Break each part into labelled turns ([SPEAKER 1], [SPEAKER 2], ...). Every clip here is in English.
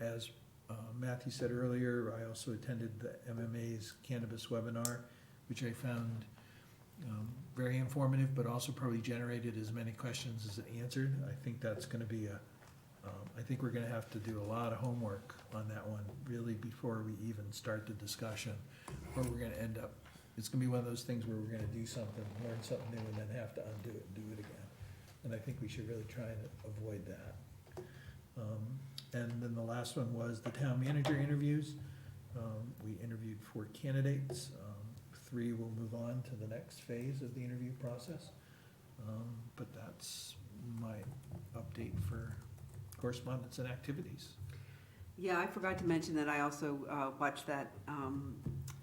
[SPEAKER 1] as uh, Matthew said earlier, I also attended the MMA's cannabis webinar, which I found um, very informative, but also probably generated as many questions as it answered. I think that's gonna be a, um, I think we're gonna have to do a lot of homework on that one, really, before we even start the discussion, or we're gonna end up, it's gonna be one of those things where we're gonna do something, learn something new, and then have to undo it and do it again. And I think we should really try and avoid that. Um, And then the last one was the town manager interviews. Um, We interviewed four candidates. Um, Three will move on to the next phase of the interview process. Um, But that's my update for correspondence and activities.
[SPEAKER 2] Yeah, I forgot to mention that I also uh, watched that um,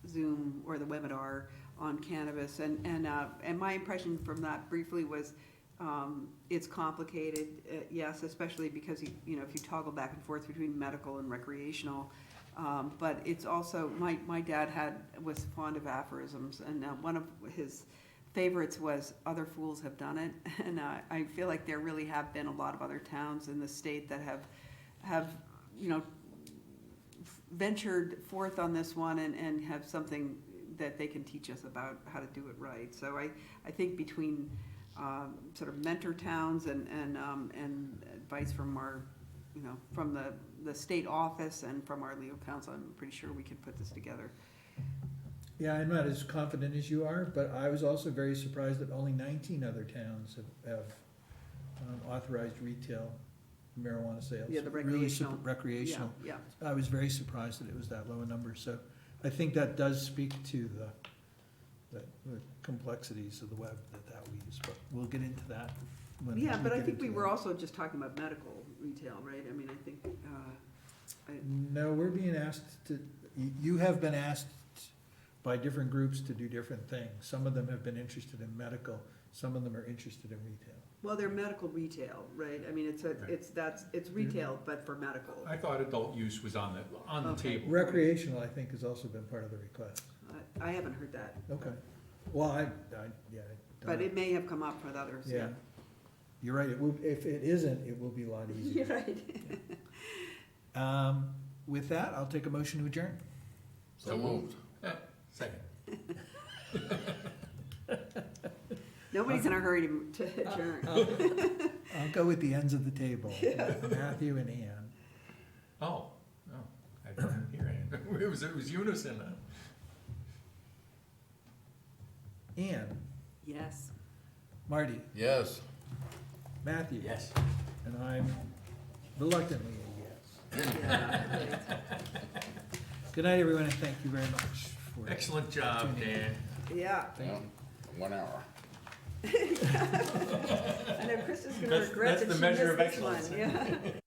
[SPEAKER 2] Zoom or the webinar on cannabis, and, and, uh, and my impression from that briefly was, um, it's complicated, uh, yes, especially because, you you know, if you toggle back and forth between medical and recreational, um, but it's also, my, my dad had, was fond of aphorisms, and uh, one of his favorites was, other fools have done it, and uh, I feel like there really have been a lot of other towns in the state that have, have, you know, ventured forth on this one and, and have something that they can teach us about how to do it right. So I, I think between um, sort of mentor towns and, and, um, and advice from our, you know, from the, the state office and from our legal counsel, I'm pretty sure we can put this together.
[SPEAKER 1] Yeah, I'm not as confident as you are, but I was also very surprised that only nineteen other towns have- have um, authorized retail marijuana sales.
[SPEAKER 2] Yeah, the
[SPEAKER 1] Really sup-
[SPEAKER 2] recreational.
[SPEAKER 1] Recreational.
[SPEAKER 2] Yeah,
[SPEAKER 1] I was very surprised that it was that low a number, so I think that does speak to the, the the complexities of the web that that we use, but we'll get into that
[SPEAKER 2] yeah.
[SPEAKER 1] when.
[SPEAKER 2] Yeah, but I
[SPEAKER 1] get
[SPEAKER 2] think we
[SPEAKER 1] into
[SPEAKER 2] were
[SPEAKER 1] that.
[SPEAKER 2] also just talking about medical retail, right? I mean, I think, uh,
[SPEAKER 1] No, we're being asked to, you, you have been asked by different groups to do different things. Some of them have been interested in medical, some of them are interested in retail.
[SPEAKER 2] well, they're medical retail, right? I mean, it's, a
[SPEAKER 3] Right. Mm-hmm.
[SPEAKER 2] it's, that's, it's retail, but for medical.
[SPEAKER 3] I thought adult use was on the, on the
[SPEAKER 2] Okay.
[SPEAKER 3] table.
[SPEAKER 1] Recreational, I think, has also been part of the request.
[SPEAKER 2] I- I haven't heard that.
[SPEAKER 1] Okay. Well, I, I, yeah. I
[SPEAKER 2] But
[SPEAKER 3] Uh,
[SPEAKER 1] don't-
[SPEAKER 2] it may have come up with others,
[SPEAKER 1] Yeah.
[SPEAKER 2] yeah.
[SPEAKER 1] You're right, it will, if it isn't, it will be a lot easier.
[SPEAKER 2] You're right.
[SPEAKER 1] Um, with that, I'll take a motion to adjourn.
[SPEAKER 3] So moved. Second.
[SPEAKER 2] Nobody's in a hurry to to adjourn.
[SPEAKER 1] uh. I'll go with the ends of the table, Matthew and Ann.
[SPEAKER 3] Oh, oh, I didn't hear it. It was, it was unison.
[SPEAKER 1] Ann,
[SPEAKER 2] Yes.
[SPEAKER 1] Marty,
[SPEAKER 4] Yes.
[SPEAKER 1] Matthew. And I'm reluctantly a yes.
[SPEAKER 2] Yeah.
[SPEAKER 1] Good night, everyone, and thank you very much for.
[SPEAKER 3] Excellent job, Dan.
[SPEAKER 2] Yeah,
[SPEAKER 1] Thank you.
[SPEAKER 4] One hour.
[SPEAKER 2] I know Krista's gonna regret
[SPEAKER 3] that's
[SPEAKER 2] that
[SPEAKER 3] the
[SPEAKER 2] she
[SPEAKER 3] measure
[SPEAKER 2] missed
[SPEAKER 3] of
[SPEAKER 2] this
[SPEAKER 3] excellence.
[SPEAKER 2] one, yeah.